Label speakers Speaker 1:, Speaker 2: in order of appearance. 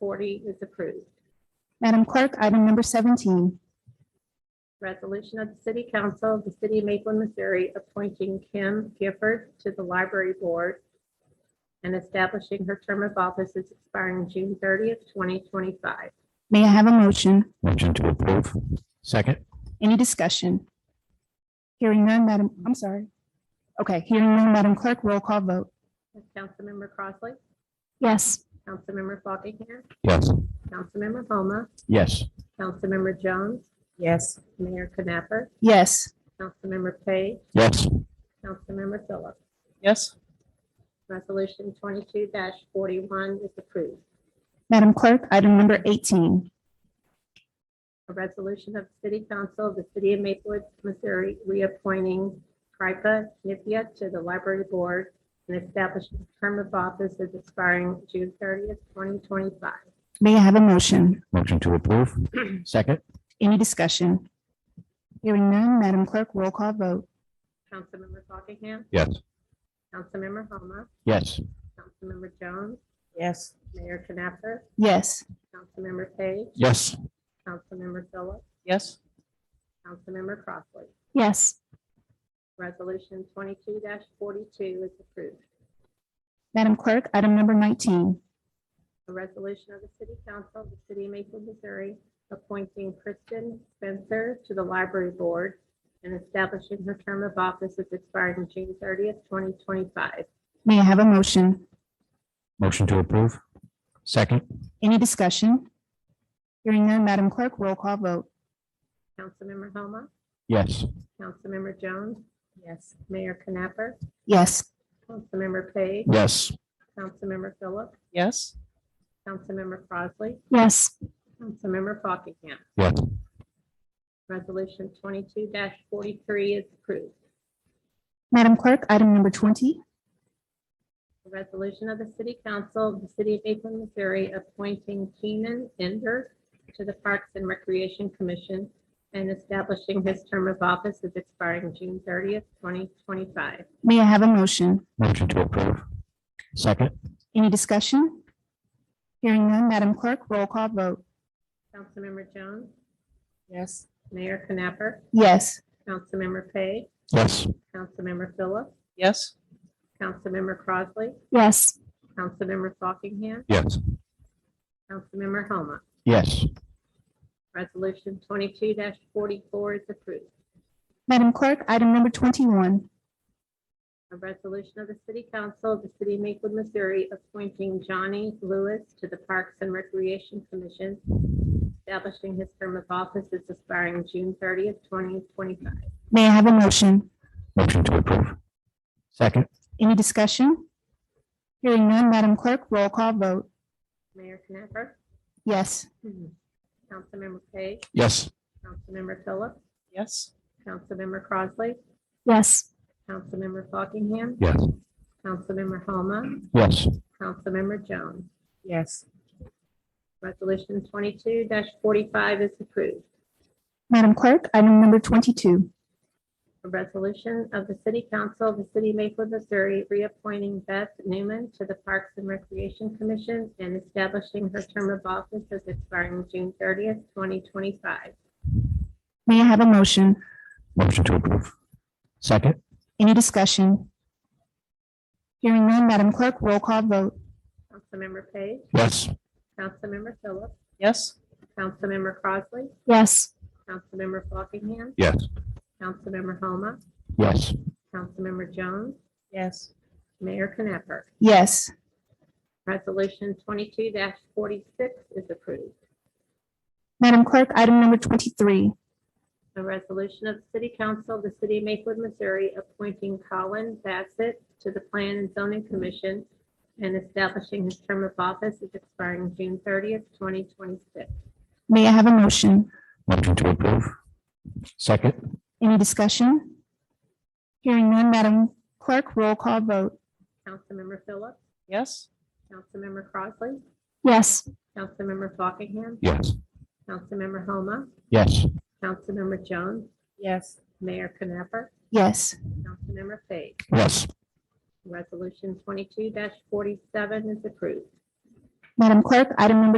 Speaker 1: forty is approved.
Speaker 2: Madam Clerk, item number 17.
Speaker 1: Resolution of the City Council of the City of Maplewood, Missouri, appointing Kim Gifford to the Library Board and establishing her term of office as expiring June thirtieth, twenty twenty-five.
Speaker 2: May I have a motion?
Speaker 3: Motion to approve. Second.
Speaker 2: Any discussion? Hearing none, Madam, I'm sorry. Okay, hearing none, Madam Clerk, roll call vote.
Speaker 1: Councilmember Crossley,
Speaker 2: Yes.
Speaker 1: Councilmember Fockingham,
Speaker 3: Yes.
Speaker 1: Councilmember Homa,
Speaker 3: Yes.
Speaker 1: Councilmember Jones,
Speaker 4: yes,
Speaker 1: Mayor Knapper,
Speaker 2: Yes.
Speaker 1: Councilmember Page,
Speaker 3: Yes.
Speaker 1: Councilmember Phillips.
Speaker 4: yes,
Speaker 1: Resolution twenty-two forty-one is approved.
Speaker 2: Madam Clerk, item number 18.
Speaker 1: A resolution of the City Council of the City of Maplewood, Missouri, reappointing Kripa Nipia to the Library Board and establishing a term of office as expiring June thirtieth, twenty twenty-five.
Speaker 2: May I have a motion?
Speaker 3: Motion to approve. Second.
Speaker 2: Any discussion? Hearing none, Madam Clerk, roll call vote.
Speaker 1: Councilmember Fockingham,
Speaker 3: Yes.
Speaker 1: Councilmember Homa,
Speaker 3: Yes.
Speaker 1: Councilmember Jones,
Speaker 4: yes,
Speaker 1: Mayor Knapper,
Speaker 2: Yes.
Speaker 1: Councilmember Page,
Speaker 3: Yes.
Speaker 1: Councilmember Phillips,
Speaker 4: yes,
Speaker 1: Councilmember Crossley.
Speaker 2: Yes.
Speaker 1: Resolution twenty-two forty-two is approved.
Speaker 2: Madam Clerk, item number 19.
Speaker 1: A resolution of the City Council of the City of Maplewood, Missouri, appointing Kristen Spencer to the Library Board and establishing her term of office as expiring June thirtieth, twenty twenty-five.
Speaker 2: May I have a motion?
Speaker 3: Motion to approve. Second.
Speaker 2: Any discussion? Hearing none, Madam Clerk, roll call vote.
Speaker 1: Councilmember Homa,
Speaker 3: Yes.
Speaker 1: Councilmember Jones,
Speaker 4: yes,
Speaker 1: Mayor Knapper,
Speaker 2: Yes.
Speaker 1: Councilmember Page,
Speaker 3: Yes.
Speaker 1: Councilmember Phillips,
Speaker 4: yes,
Speaker 1: Councilmember Crossley,
Speaker 2: Yes.
Speaker 1: Councilmember Fockingham.
Speaker 3: Yes.
Speaker 1: Resolution twenty-two forty-three is approved.
Speaker 2: Madam Clerk, item number 20.
Speaker 1: A resolution of the City Council of the City of Maplewood, Missouri, appointing Keenan Ender to the Parks and Recreation Commission and establishing his term of office as expiring June thirtieth, twenty twenty-five.
Speaker 2: May I have a motion?
Speaker 3: Motion to approve. Second.
Speaker 2: Any discussion? Hearing none, Madam Clerk, roll call vote.
Speaker 1: Councilmember Jones,
Speaker 4: yes,
Speaker 1: Mayor Knapper,
Speaker 2: Yes.
Speaker 1: Councilmember Page,
Speaker 3: Yes.
Speaker 1: Councilmember Phillips,
Speaker 4: yes,
Speaker 1: Councilmember Crossley,
Speaker 2: Yes.
Speaker 1: Councilmember Fockingham,
Speaker 3: Yes.
Speaker 1: Councilmember Homa.
Speaker 3: Yes.
Speaker 1: Resolution twenty-two forty-four is approved.
Speaker 2: Madam Clerk, item number 21.
Speaker 1: A resolution of the City Council of the City of Maplewood, Missouri, appointing Johnny Lewis to the Parks and Recreation Commission, establishing his term of office as expiring June thirtieth, twenty twenty-five.
Speaker 2: May I have a motion?
Speaker 3: Motion to approve. Second.
Speaker 2: Any discussion? Hearing none, Madam Clerk, roll call vote.
Speaker 1: Mayor Knapper,
Speaker 2: Yes.
Speaker 1: Councilmember Page,
Speaker 3: Yes.
Speaker 1: Councilmember Phillips,
Speaker 4: yes,
Speaker 1: Councilmember Crossley,
Speaker 2: Yes.
Speaker 1: Councilmember Fockingham,
Speaker 3: Yes.
Speaker 1: Councilmember Homa,
Speaker 3: Yes.
Speaker 1: Councilmember Jones.
Speaker 4: yes,
Speaker 1: Resolution twenty-two forty-five is approved.
Speaker 2: Madam Clerk, item number 22.
Speaker 1: A resolution of the City Council of the City of Maplewood, Missouri, reappointing Beth Newman to the Parks and Recreation Commission and establishing her term of office as expiring June thirtieth, twenty twenty-five.
Speaker 2: May I have a motion?
Speaker 3: Motion to approve. Second.
Speaker 2: Any discussion? Hearing none, Madam Clerk, roll call vote.
Speaker 1: Councilmember Page,
Speaker 3: Yes.
Speaker 1: Councilmember Phillips,
Speaker 4: yes,
Speaker 1: Councilmember Crossley,
Speaker 2: Yes.
Speaker 1: Councilmember Fockingham,
Speaker 3: Yes.
Speaker 1: Councilmember Homa,
Speaker 3: Yes.
Speaker 1: Councilmember Jones,
Speaker 4: yes,
Speaker 1: Mayor Knapper.
Speaker 2: Yes.
Speaker 1: Resolution twenty-two forty-six is approved.
Speaker 2: Madam Clerk, item number 23.
Speaker 1: A resolution of the City Council of the City of Maplewood, Missouri, appointing Colin Bassett to the Plan and Zoning Commission and establishing his term of office as expiring June thirtieth, twenty twenty-six.
Speaker 2: May I have a motion?
Speaker 3: Motion to approve. Second.
Speaker 2: Any discussion? Hearing none, Madam Clerk, roll call vote.
Speaker 1: Councilmember Phillips,
Speaker 4: yes,
Speaker 1: Councilmember Crossley,
Speaker 2: Yes.
Speaker 1: Councilmember Fockingham,
Speaker 3: Yes.
Speaker 1: Councilmember Homa,
Speaker 3: Yes.
Speaker 1: Councilmember Jones,
Speaker 4: yes,
Speaker 1: Mayor Knapper,
Speaker 2: Yes.
Speaker 1: Councilmember Page.
Speaker 3: Yes.
Speaker 1: Resolution twenty-two forty-seven is approved.
Speaker 2: Madam Clerk, item number